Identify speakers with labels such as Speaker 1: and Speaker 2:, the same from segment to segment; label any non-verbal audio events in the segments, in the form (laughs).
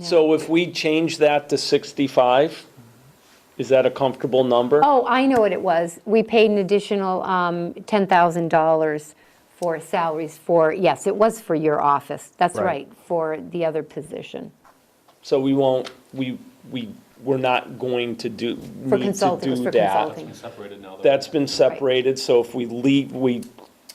Speaker 1: So if we change that to 65, is that a comfortable number?
Speaker 2: Oh, I know what it was. We paid an additional um, $10,000 for salaries for, yes, it was for your office. That's
Speaker 1: Right.
Speaker 2: right, for the other position.
Speaker 1: So we won't, we, we, we're not going to do, need
Speaker 2: For
Speaker 1: to
Speaker 2: consulting, it was
Speaker 1: do
Speaker 2: for
Speaker 1: that.
Speaker 2: consulting.
Speaker 3: separated now. though.
Speaker 1: That's been separated, so if we leave, we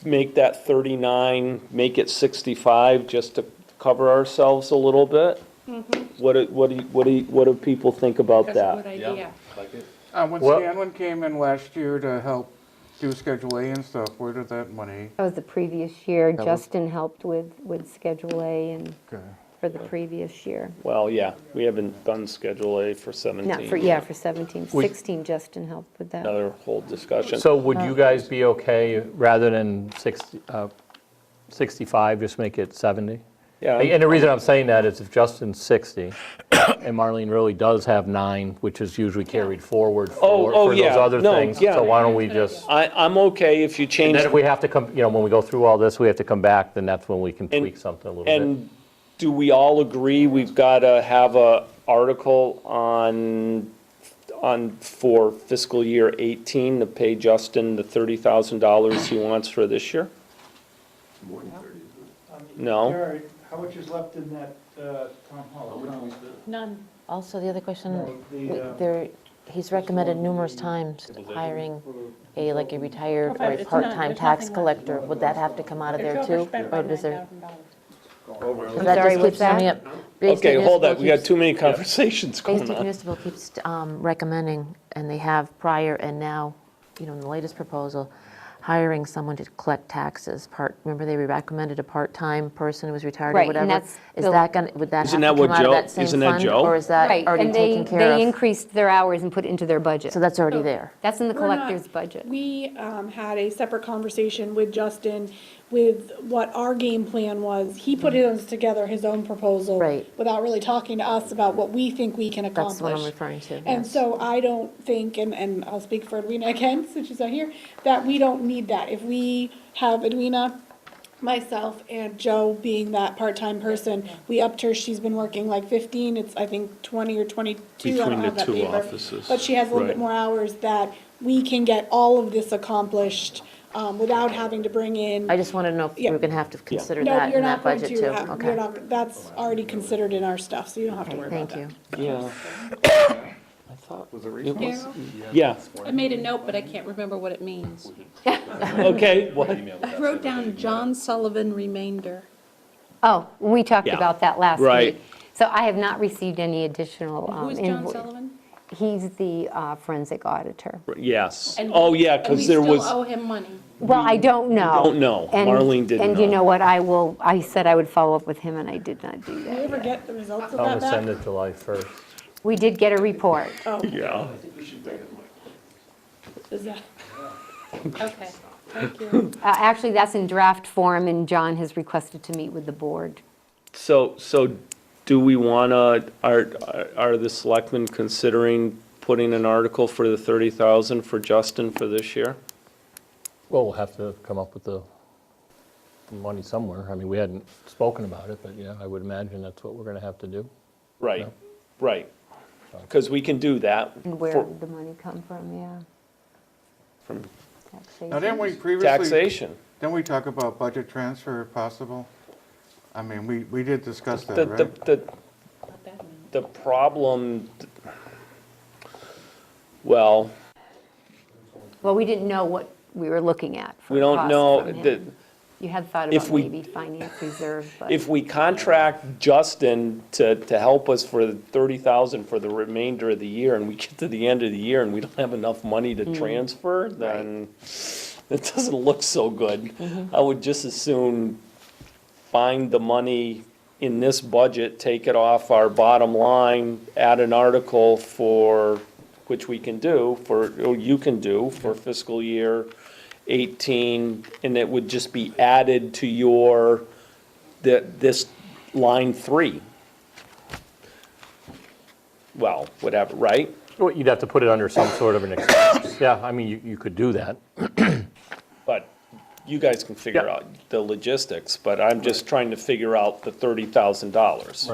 Speaker 1: make that 39, make it 65, just to cover ourselves a little bit?
Speaker 2: Mm-hmm.
Speaker 1: What, do- what do, you- what do, you- what do people think about
Speaker 4: That's a good
Speaker 1: that?
Speaker 4: idea.
Speaker 3: Like it.
Speaker 5: Uh, when
Speaker 6: Well-
Speaker 5: Scanlon came in last year to help do Schedule A and stuff, where did that money?
Speaker 2: That was the previous year.
Speaker 6: was-
Speaker 2: Justin helped with, with Schedule A and
Speaker 6: Okay.
Speaker 2: for the previous year.
Speaker 1: Well, yeah, we haven't done Schedule A for 17.
Speaker 2: Not for, yeah, for 17,
Speaker 6: We-
Speaker 2: 16, Justin helped with that.
Speaker 1: Another whole discussion.
Speaker 6: So would you guys be okay, rather than 60, uh, 65, just make it 70?
Speaker 1: Yeah, I'm-
Speaker 6: And the reason I'm saying that is if Justin's 60, (coughs) and Marlene really does have nine, which is usually carried forward
Speaker 1: Oh,
Speaker 6: for
Speaker 1: oh,
Speaker 6: for those
Speaker 1: yeah.
Speaker 6: other
Speaker 1: No,
Speaker 6: things,
Speaker 1: yeah.
Speaker 6: so why don't we just,
Speaker 1: I, I'm okay if you
Speaker 6: and
Speaker 1: change,
Speaker 6: then if we have to come, you know, when we go through all this, we have to come back, then that's when we can tweak something a little bit.
Speaker 1: and do we all agree we've got to have a article on, on, for fiscal year 18 to pay Justin the $30,000 he wants for this year? No.
Speaker 7: Jared, how much is left in that uh, town hall? account?
Speaker 4: None.
Speaker 8: Also, the other question,
Speaker 7: The, uh,
Speaker 8: there, he's recommended numerous times hiring a, like a retired or
Speaker 4: It's
Speaker 8: a
Speaker 4: not-
Speaker 8: part-time
Speaker 4: there's
Speaker 8: tax
Speaker 4: nothing left.
Speaker 8: collector. Would that have to come out of
Speaker 4: They're
Speaker 8: there
Speaker 4: over
Speaker 8: too?
Speaker 4: spent
Speaker 8: Or
Speaker 4: by
Speaker 8: does there?
Speaker 4: $9,000.
Speaker 8: Because
Speaker 2: I'm
Speaker 8: that
Speaker 2: sorry,
Speaker 8: just
Speaker 2: what's
Speaker 8: keeps coming
Speaker 2: that?
Speaker 8: up. Bay State
Speaker 1: Okay, hold
Speaker 8: Municipal
Speaker 1: that, we got
Speaker 8: keeps-
Speaker 1: too many conversations
Speaker 8: Bay
Speaker 1: going
Speaker 8: State
Speaker 1: on.
Speaker 8: Municipal keeps um, recommending, and they have prior and now, you know, in the latest proposal, hiring someone to collect taxes. Part, remember they recommended a part-time person who was retired
Speaker 2: Right,
Speaker 8: or
Speaker 2: and
Speaker 8: whatever?
Speaker 2: that's
Speaker 8: Is
Speaker 2: the-
Speaker 8: that gonna, would that have
Speaker 1: Isn't
Speaker 8: to
Speaker 1: that what
Speaker 8: come out
Speaker 1: Joe-
Speaker 8: of that same
Speaker 1: isn't that
Speaker 8: fund?
Speaker 1: Joe?
Speaker 8: Or is that
Speaker 2: Right,
Speaker 8: already
Speaker 2: and they-
Speaker 8: taken care
Speaker 2: They
Speaker 8: of?
Speaker 2: increased their hours and put it into their budget.
Speaker 8: So that's already there?
Speaker 2: That's in the
Speaker 4: We're not-
Speaker 2: collector's budget.
Speaker 4: We um, had a separate conversation with Justin with what our game plan was. He
Speaker 8: Hmm.
Speaker 4: put his together his own proposal.
Speaker 8: Right.
Speaker 4: Without really talking to us about what we think we can accomplish.
Speaker 8: That's what I'm referring to,
Speaker 4: And
Speaker 8: yes.
Speaker 4: so I don't think, and, and I'll speak for Edwina again, (laughs) since she's not here, that we don't need that. If we have Edwina, myself, and Joe being that part-time person, we upped her, she's been working like fifteen, it's, I think, twenty or twenty-two. I don't
Speaker 1: Between the
Speaker 4: have that
Speaker 1: two
Speaker 4: paper.
Speaker 1: offices,
Speaker 4: But she has a little
Speaker 1: right.
Speaker 4: bit more hours that we can get all of this accomplished, um, without having to bring in.
Speaker 8: I just want to know if
Speaker 4: Yeah.
Speaker 8: we're going to have to consider
Speaker 4: No,
Speaker 8: that
Speaker 4: you're
Speaker 8: in that
Speaker 4: not going
Speaker 8: budget
Speaker 4: to
Speaker 8: too?
Speaker 4: have- you're
Speaker 8: Okay,
Speaker 4: not-
Speaker 1: Oh,
Speaker 4: That's already considered in our stuff, so you don't have to worry about
Speaker 8: thank
Speaker 4: that.
Speaker 8: you.
Speaker 1: Yeah. (coughs) I thought
Speaker 5: Was it
Speaker 1: it
Speaker 5: recent?
Speaker 1: was-
Speaker 9: Daryl,
Speaker 1: Yeah,
Speaker 9: I made a note, but I can't remember what it means.
Speaker 1: okay, what?
Speaker 9: I wrote down John Sullivan remainder.
Speaker 2: Oh, we talked
Speaker 1: Yeah.
Speaker 2: about that last week.
Speaker 1: Right.
Speaker 2: So I have not received any additional. um,
Speaker 9: Who's John
Speaker 2: invo-
Speaker 9: Sullivan?
Speaker 2: He's the uh, forensic auditor.
Speaker 1: Yes,
Speaker 9: And-
Speaker 1: oh, yeah, because there was.
Speaker 9: And we still owe him money.
Speaker 2: Well, I don't know.
Speaker 1: don't know.
Speaker 2: And-
Speaker 1: Marlene didn't
Speaker 2: And you
Speaker 1: know.
Speaker 2: know what, I will, I said I would follow up with him, and I did not do
Speaker 4: Do you
Speaker 2: that.
Speaker 4: ever get the results of
Speaker 6: I'm going
Speaker 4: that
Speaker 6: to
Speaker 4: back?
Speaker 6: send it July 1st.
Speaker 2: We did get a report.
Speaker 1: Yeah.
Speaker 4: Oh, Is that-
Speaker 9: Okay, thank you.
Speaker 1: (laughs)
Speaker 2: Uh, Actually, that's in draft form, and John has requested to meet with the board.
Speaker 1: So, so do we want to, are, are the selectmen considering putting an article for the 30,000 for Justin for this year?
Speaker 6: Well, we'll have to come up with the money somewhere. I mean, we hadn't spoken about it, but yeah, I would imagine that's what we're going to have to do.
Speaker 1: Right, right. Because we can do that.
Speaker 2: And where
Speaker 1: for-
Speaker 2: did the money come from, yeah? From.
Speaker 5: Now, didn't we previously,
Speaker 1: Taxation.
Speaker 5: didn't we talk about budget transfer if possible? I mean, we, we did discuss
Speaker 1: The,
Speaker 5: that,
Speaker 1: the,
Speaker 5: right?
Speaker 1: the, the problem, well,
Speaker 2: Well, we didn't know what we were looking at for
Speaker 1: we don't
Speaker 2: costs
Speaker 1: know,
Speaker 2: from him.
Speaker 1: that,
Speaker 2: You had thought
Speaker 1: if
Speaker 2: about
Speaker 1: we-
Speaker 2: maybe finance reserve, but.
Speaker 1: if we contract Justin to, to help us for the thirty thousand for the remainder of the year, and we get to the end of the year and we don't have enough money to transfer, then it doesn't look so good. I would just as soon find the money in this budget, take it off our bottom line, add an article for, which we can do, for, or you can do, for fiscal year eighteen, and it would just be added to your, the, this line three. Well, whatever, right?
Speaker 6: Well, you'd have to put it under some sort of an excuse. Yeah, I mean, you, you could do that.
Speaker 1: But you guys can figure
Speaker 6: Yeah.
Speaker 1: out the logistics, but I'm just trying to figure out the thirty thousand dollars.